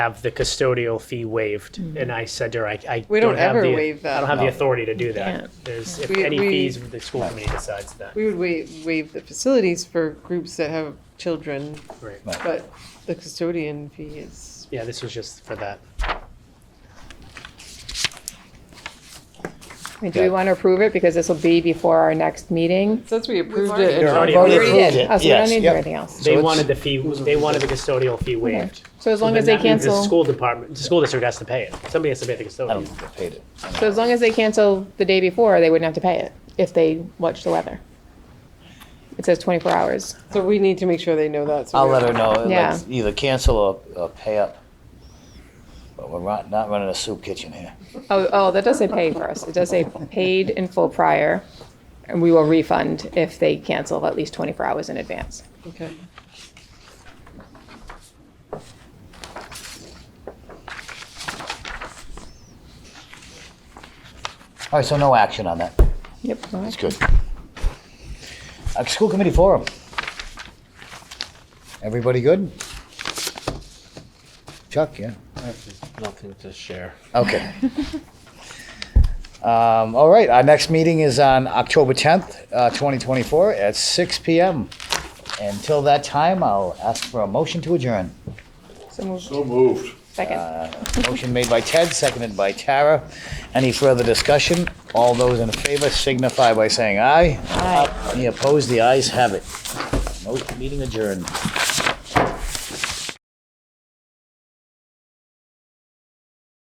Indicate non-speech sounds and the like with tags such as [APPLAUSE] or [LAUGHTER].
have the custodial fee waived. Mm-hmm. And I said to her, I, I We don't have ever the- waive that. I don't have the No. authority to do that. Yeah. There's, if We- any we- fees, the school committee decides that. We would waive, waive the facilities for groups that have children, Right. but the custodian fee is, Yeah, this was just for that. I mean, Do we want to approve it? Because this will be before our next meeting. since we approved already- it. They're already Oh, we approved already it, did. Oh, so we don't yes, need to do yep. anything else. They it's- wanted the fee, they wanted the custodial fee waived. So as long as they That means The cancel, school department, the school district has to pay it. Somebody has to pay the I don't custodian. think they paid it. so as long as they cancel the day before, they wouldn't have to pay it if they watch the weather. It says 24 hours. So we need to make sure they know that. so I'll we- let her know, Yeah. let's either cancel or, or pay up. But we're not, not running a soup kitchen here. Oh, oh, that does say pay for us. It does say paid in full prior, and we will refund if they cancel at least 24 hours in advance. Okay. All right, so no action on that. Yep. all right. That's good. Uh, school committee forum. Everybody good? Chuck, yeah? Nothing to share. Okay. [LAUGHS] Um, all right, our next meeting is on October 10th, uh, 2024 at 6 p.m. Until that time, I'll ask for a motion to adjourn. So moved. So moved. Uh, Second. Motion made by Ted, seconded by Tara. Any further discussion? All those in favor signify by saying aye. Aye. Any opposed? The ayes have it. Mo- Meeting adjourned.